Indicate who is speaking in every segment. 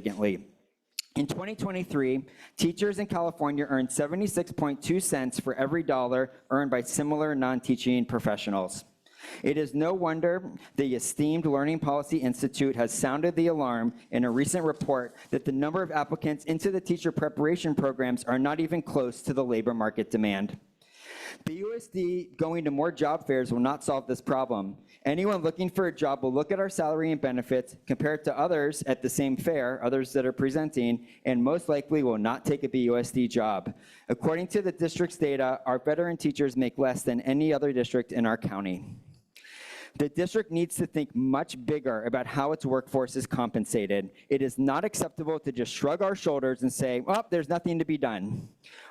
Speaker 1: significantly. In 2023, teachers in California earned 76.2 cents for every dollar earned by similar non-teaching professionals. It is no wonder the esteemed Learning Policy Institute has sounded the alarm in a recent report that the number of applicants into the teacher preparation programs are not even close to the labor market demand. The USD going to more job fairs will not solve this problem. Anyone looking for a job will look at our salary and benefits, compare it to others at the same fair, others that are presenting, and most likely will not take a BUSD job. According to the district's data, our veteran teachers make less than any other district in our county. The district needs to think much bigger about how its workforce is compensated. It is not acceptable to just shrug our shoulders and say, well, there's nothing to be done.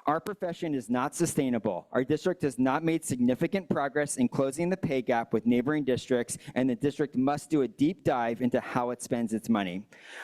Speaker 1: Our profession is not sustainable. Our district has not made significant progress in closing the pay gap with neighboring districts, and the district must do a deep dive into how it spends its money.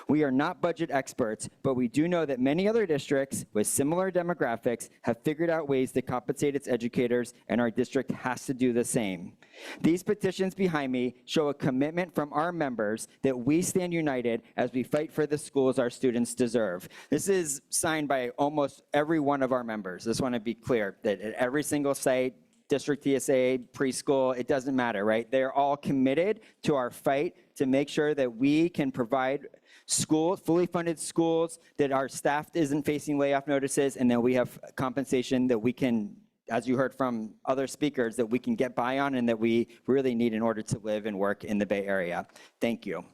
Speaker 1: We are not budget experts, but we do know that many other districts with similar demographics have figured out ways to compensate its educators, and our district has to do the same. These petitions behind me show a commitment from our members that we stand united as we fight for the schools our students deserve. This is signed by almost every one of our members. Just want to be clear that at every single site, district TSA, preschool, it doesn't matter, right? They're all committed to our fight to make sure that we can provide school, fully funded schools, that our staff isn't facing layoff notices, and that we have compensation that we can as you heard from other speakers, that we can get by on and that we really need in order to live and work in the Bay Area. Thank you.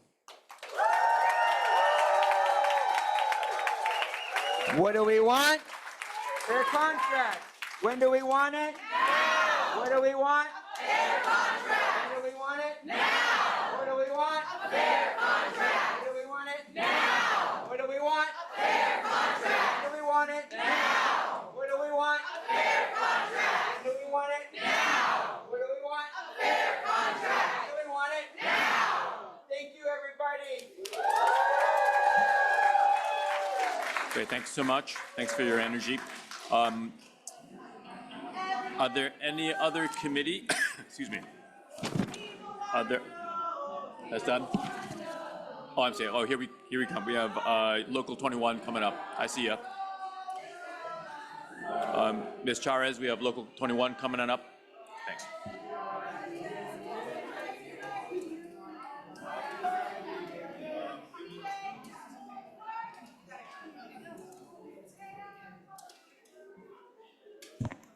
Speaker 1: What do we want? Fair contracts. When do we want it? Now. What do we want? Fair contracts. When do we want it? Now. What do we want? A fair contract. When do we want it? Now. What do we want? A fair contract. When do we want it? Now. What do we want? A fair contract. When do we want it? Now. What do we want? A fair contract. When do we want it? Now. Thank you, everybody.
Speaker 2: Great, thanks so much. Thanks for your energy. Um, Are there any other committee, excuse me, are there, that's done? Oh, I'm sorry, oh, here we, here we come. We have uh, Local 21 coming up. I see ya. Um, Ms. Charez, we have Local 21 coming on up. Thanks.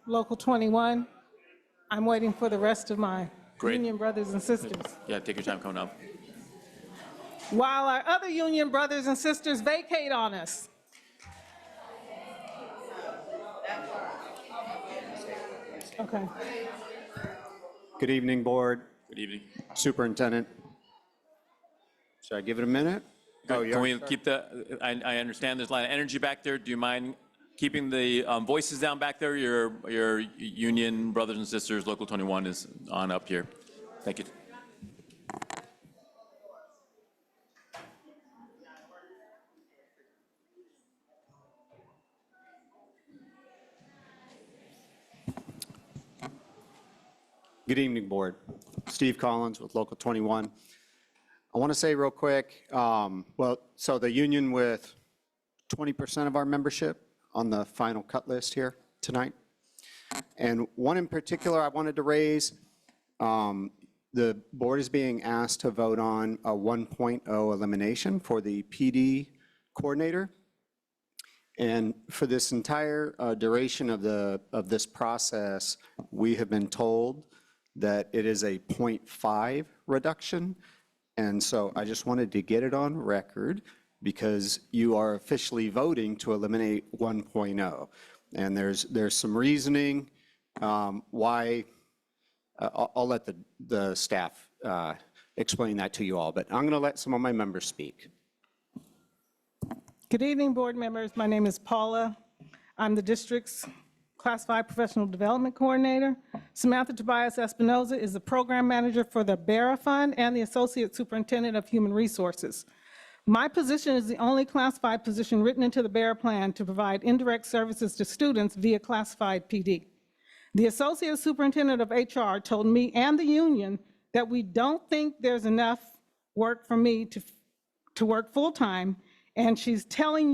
Speaker 3: Local 21. I'm waiting for the rest of my
Speaker 2: Great.
Speaker 3: union brothers and sisters.
Speaker 2: Yeah, take your time coming up.
Speaker 3: While our other union brothers and sisters vacate on us. Okay.
Speaker 4: Good evening, Board,
Speaker 2: Good evening.
Speaker 4: Superintendent. Should I give it a minute? Oh, you
Speaker 2: Can
Speaker 4: already
Speaker 2: we keep the, I, I understand there's a lot of energy back there. Do you mind keeping the um, voices down back there? Your, your union brothers and sisters, Local 21 is on up here. Thank you.
Speaker 4: Good evening, Board. Steve Collins with Local 21. I want to say real quick, um, well, so the union with 20% of our membership on the final cut list here tonight. And one in particular I wanted to raise, um, the board is being asked to vote on a 1.0 elimination for the PD coordinator. And for this entire uh, duration of the, of this process, we have been told that it is a 0.5 reduction. And so I just wanted to get it on record because you are officially voting to eliminate 1.0. And there's, there's some reasoning um, why uh, I'll, I'll let the, the staff uh, explain that to you all, but I'm going to let some of my members speak.
Speaker 3: Good evening, board members. My name is Paula. I'm the district's classified professional development coordinator. Samantha Tobias Espinoza is the program manager for the Barra Fund and the associate superintendent of human resources. My position is the only classified position written into the Barra Plan to provide indirect services to students via classified PD. The associate superintendent of HR told me and the union that we don't think there's enough work for me to, to work full-time And she's telling